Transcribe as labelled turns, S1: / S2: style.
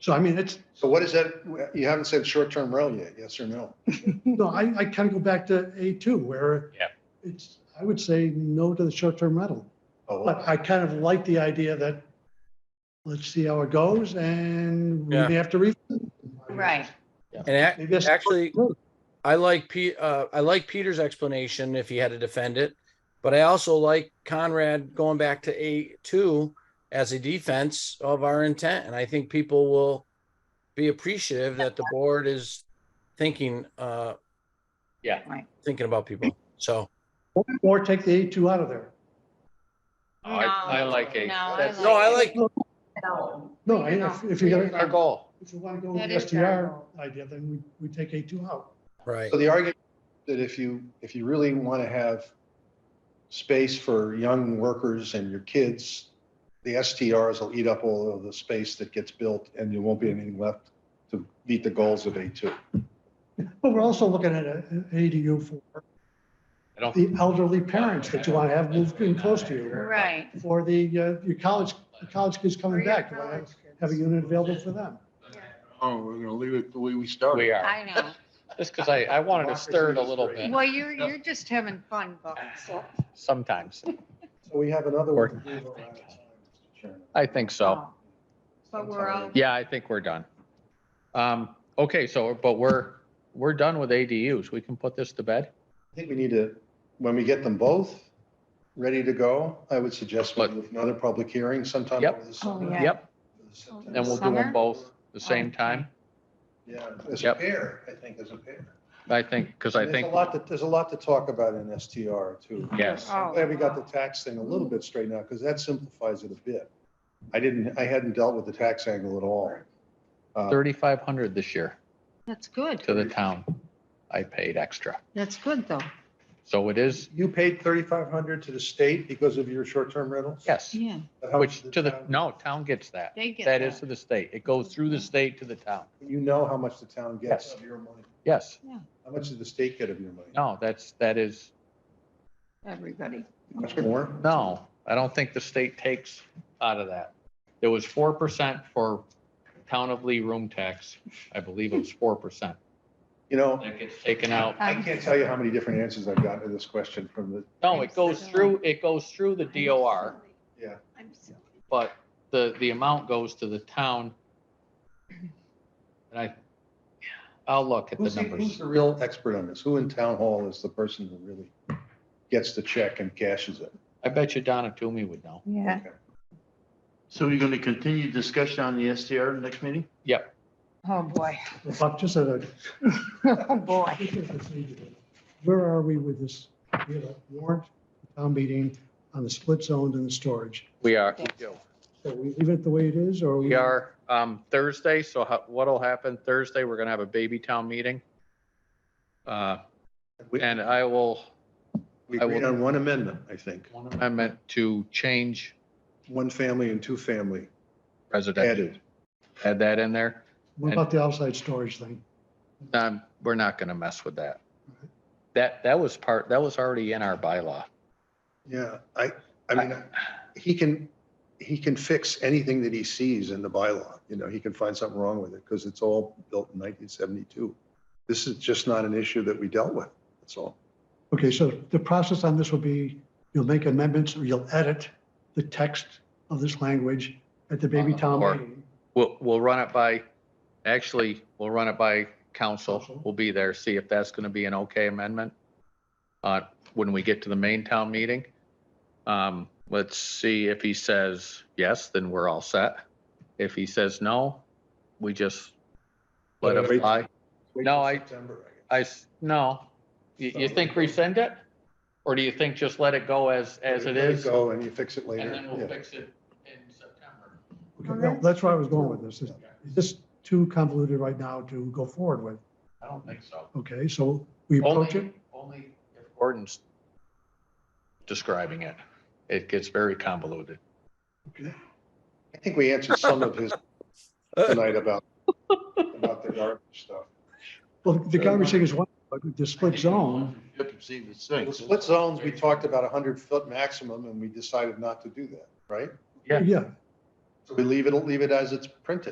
S1: So I mean, it's,
S2: So what is that? You haven't said short-term rental yet, yes or no?
S1: no, I, I kind of go back to A2 where
S3: Yeah.
S1: it's, I would say no to the short-term rental.
S2: Oh,
S1: But I kind of like the idea that let's see how it goes and we
S4: Yeah.
S1: may have to re.
S5: Right.
S4: And ac-
S1: Maybe that's-
S4: actually, I like Pete, uh, I like Peter's explanation if he had to defend it. But I also like Conrad going back to A two as a defense of our intent. And I think people will be appreciative that the board is thinking, uh,
S3: Yeah.
S5: Right.
S4: Thinking about people. So,
S1: Or take the A2 out of there.
S3: I, I like
S5: No,
S3: a,
S5: I
S3: that's
S4: no, I like,
S1: No, I- if, if you're
S3: our
S1: gonna,
S3: goal.
S1: if you want to go with
S5: That
S1: the
S5: is
S1: STR
S5: terrible.
S1: idea, then we, we take A2 out.
S4: right.
S2: So the argument that if you, if you really want to have space for young workers and your kids, the STRs will eat up all of the space that gets built and there won't be anything left to meet the goals of A2.
S1: But we're also looking at a- an ADU for
S3: I don't,
S1: the elderly parents that you want to have moved in close to you.
S5: Right.
S1: For the, uh, your college, the college kids
S5: For
S1: coming
S5: your
S1: back, you wanna
S5: college kids.
S1: have a unit available for them.
S6: Oh, we're gonna leave it the way we started.
S3: we are,
S5: I know.
S3: just because I, I wanted to stir it a little bit
S5: Well, you're, you're just having fun, Buck, so.
S3: sometimes.
S2: So we have another
S3: Or-
S2: one. Uh, to do around this time, Mr. Chairman.
S3: I think
S5: Oh.
S3: so.
S5: But we're all.
S3: Yeah, I think we're done. Um, okay, so, but we're, we're done with ADUs. We can put this to bed.
S2: I think we need to, when we get them both ready to go, I would suggest we do another public hearing sometime.
S3: Yep.
S2: over the summer.
S5: Oh, yeah.
S3: Yep, and we'll do
S5: Summer?
S3: them both the same time.
S2: Yeah, as a
S3: Yep.
S2: pair, I think, as a pair.
S3: I think, because I think,
S2: There's a lot that, there's a lot to talk about in STR too.
S3: yes,
S5: Oh.
S2: I'm glad we got the tax thing a little bit straightened out because that simplifies it a bit. I didn't, I hadn't dealt with the tax angle at all. Uh,
S3: 3,500 this year
S5: That's good.
S3: to the town. I paid extra.
S5: That's good, though.
S3: So it is,
S2: You paid thirty-five hundred to the state because of your short-term rentals?
S3: yes,
S5: Yeah,
S2: How much
S3: which
S2: did
S3: to the,
S2: town-
S3: no, town gets that.
S5: they get
S3: That is
S5: that.
S3: to the state. It goes through the state to the town.
S2: You know how much the town gets
S3: Yes.
S2: of your money.
S3: Yes,
S2: How much did the state get of your money?
S3: no, that's, that is,
S5: Everybody. Um,
S2: Much more?
S3: no, I don't think the state takes out of that. There was 4% for town of Lee room tax. I believe it was 4%.
S2: You know,
S3: That gets taken out.
S2: I
S5: Um,
S2: can't tell you how many different answers I've gotten to this question from the,
S3: No, it goes through, it goes through the DOR.
S2: yeah.
S5: I'm silly.
S3: but the, the amount goes to the town. And I, I'll look at the
S2: Who's the, who's
S3: numbers.
S2: the real expert on this? Who in town hall is the person who really gets the check and cashes it?
S3: I bet you Donna Toomey would know.
S5: Yeah.
S6: So we're gonna continue discussion on the STR next meeting?
S3: Yep,
S5: Oh, boy.
S1: Buck, just a,
S5: Oh, boy.
S1: where are we with this? We have a warrant, town meeting on the split zones and the storage.
S3: we are,
S1: So we leave it the way it is or?
S3: we are, um, Thursday, so how- what'll happen Thursday, we're gonna have a baby town meeting. Uh,
S2: We-
S3: and I will,
S2: We
S3: I will-
S2: agreed on one amendment, I think.
S3: I meant to change
S2: One family and two family
S3: residential,
S2: added.
S3: add that in there.
S1: What about the outside storage thing?
S3: Um, we're not gonna mess with that. That, that was part, that was already in our bylaw.
S2: Yeah, I, I mean, he can, he can fix anything that he sees in the bylaw. You know, he can find something wrong with it because it's all built in 1972. This is just not an issue that we dealt with. That's all.
S1: Okay, so the process on this will be, you'll make amendments or you'll edit the text of this language at the baby town
S3: Uh, Or-
S1: meeting.
S3: We'll, we'll run it by, actually, we'll run it by council.
S1: Council.
S3: We'll be there, see if that's going to be an okay amendment. Uh, when we get to the main town meeting. Um, let's see if he says yes, then we're all set. If he says no, we just let it
S2: Wait.
S3: fly.
S2: Wait
S3: No,
S2: till
S3: I-
S2: September, I guess.
S3: I, s- no. You, you think rescind it? Or do you think just let it go as, as it
S2: Let
S3: is? And
S2: Go and you fix it later.
S3: then
S2: Yeah.
S3: we'll fix it in September.
S1: Okay, no, That's where I was going with this. Is is this too convoluted right now to go forward with?
S3: I don't think so.
S1: Okay, so we approach it?
S3: Only, only if Gordon's describing it. It gets very convoluted.
S2: I think we answered some of his tonight about, about the garbage stuff.
S1: Well, the garbage thing is one, but the split zone,
S6: You can see the
S2: The
S6: six.
S2: split zones, we talked about a hundred foot maximum and we decided not to do that, right?
S3: Yeah.
S1: yeah,
S2: So we leave it, leave it as it's printed.